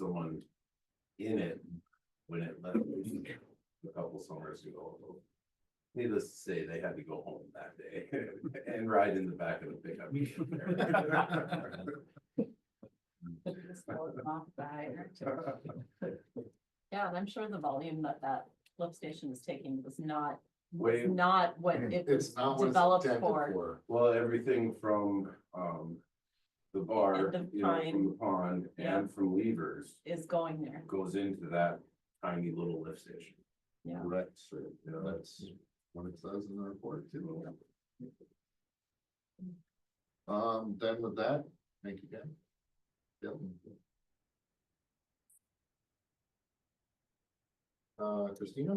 someone in it when it left a couple summers ago. Needless to say, they had to go home that day and ride in the back of the pickup. Just roll it off by. Yeah, and I'm sure the volume that that lift station is taking was not, was Way, not what it was It's not what it's developed intended for. for. well, everything from, um, the bar, And the you know, pine. from the pond Yeah. and from levers Is going there. goes into that tiny little lift station. Yeah. Right, so, you know, That's what it says in the report too. Um, then with that, thank you, Dan. Bill? Uh, Christina, I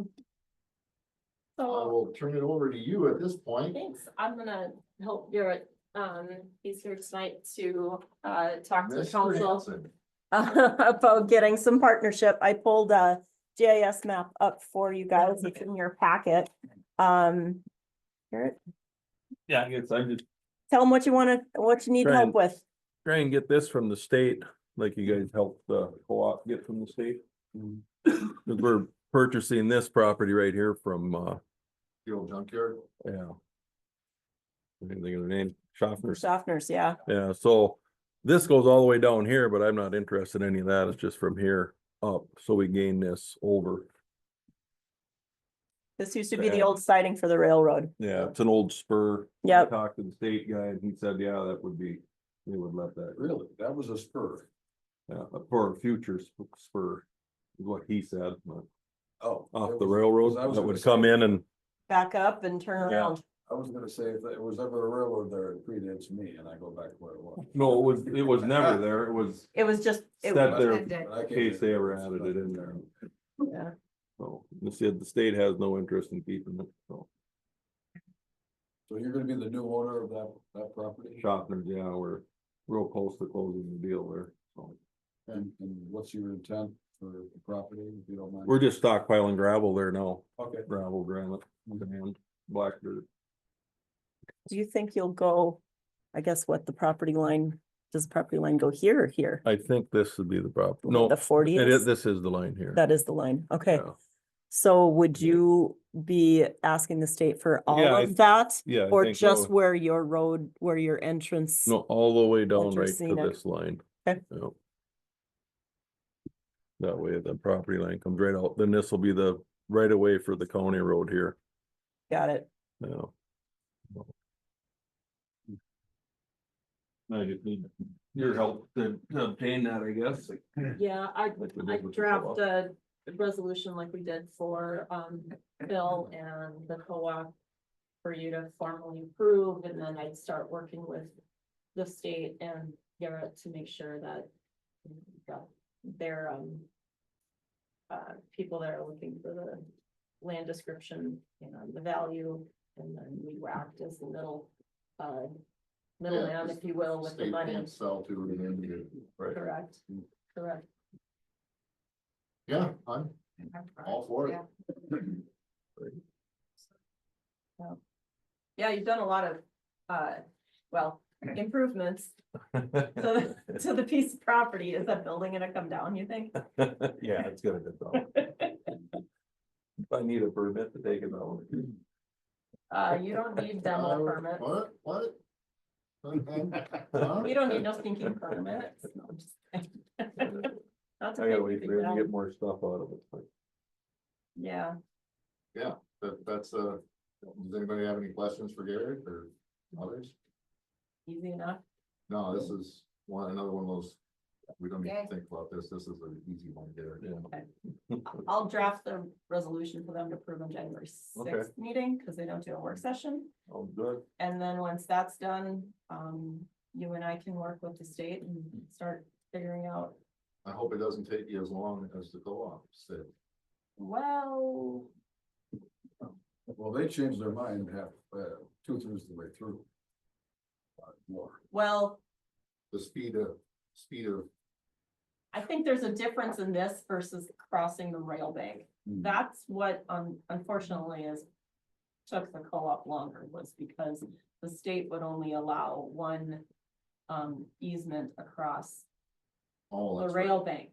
So, will turn it over to you at this point. thanks, I'm gonna help Garrett, um, he's here tonight to, uh, talk to the Mr. council. Hanson. About getting some partnership, I pulled a GIS map up for you guys, it's in your packet. Um, Garrett, Yeah, I guess I just tell them what you wanna, what you need Right. help with. try and get this from the state, like you guys helped the co-op get from the state. Mhm. we we're purchasing this property right here from, uh, The old junkyard. yeah. I didn't think of their name, Schaffner's, Softeners, yeah, yeah, so this goes all the way down here, but I'm not interested in any of that, it's just from here up, so we gain this over. this used to be the Yeah. old siding for the railroad, Yeah, it's an old spur. Yeah. Yep. Talked to the state guy and he said, yeah, that would be, they would let that, Really? That was a spur. yeah, uh, for a future sp- spur, is what he said, but Oh. off it the was- railroad I was that gonna would say- come in and back up and turn Yeah. around. I was gonna say, if it was ever a railroad there, it predates me and I go back to where it was. No, it was, it was never there, it was It was just, it set was, there Good in day. But I came case they ever added it in there. So, they said the state has no interest in keeping it, so, So you're gonna be the new owner of that, that property? Shoppers, yeah, we're real close to closing the deal there, so. And, and what's your intent for the property, if you don't mind? We're just stockpiling gravel there now, Okay, gravel, granite, and black dirt. do you think you'll go, I guess what the property line, does property line go here or here? I think this would be the problem, Uh, no, The forty it is, this is the line here. That is the line, okay. Yeah. So would you be asking the state for all Yeah, I of that? Yeah. I Or think just all- where your road, where your entrance? No, all the way down right Interesting, to okay. this line. Okay. Yeah. That way the property line comes right out, then this will be the right away for the county road here, Got it. yeah. I just need your help to to obtain that, I guess. Yeah, I, like we did I with the draft co-op. a resolution like we did for, um, Bill and the co-op. For you to formally approve, and then I'd start working with the state and Garrett to make sure that. you know, we've got Their, um. Uh, people that are looking for the land description, you know, the value, and then we were act as the middle, uh. Yeah, Middleman, if you will, with the state money, can't sell to it and you- correct, correct. Yeah, I'm all for it. Yeah, you've done a lot of, uh, well, improvements to, the- to the piece of property. Is that building gonna come down, you think? Yeah, it's gonna get done. I need a permit to take it out. Uh, you don't need demo Uh, permit. What, what? Uh-huh. You Huh? don't need no stinking permit. No, I'm just kidding. Not to I gotta make wait you for think him to that- get more stuff out of it. Yeah, That, that's, uh, does anybody have any questions for Garrett or others? easy enough. No, this is one, another one of those, we don't need to Okay. think about this, this is an easy one, Garrett. Yeah. I'll draft the resolution for them to approve on January Okay. sixth meeting, because they don't do a work session. Oh, good. And then once that's done, um, you and I can work with the state and start figuring out, I hope it doesn't take you as long as the co-op said. well, Well, they changed their mind half, uh, two thirds of the way through. Uh, more. well, The speed of, speed of. I think there's a difference in this versus crossing the rail bank. Hmm. That's what um unfortunately is. Took the co-op longer was because the state would only allow one. Um easement across All the that's right. rail bank.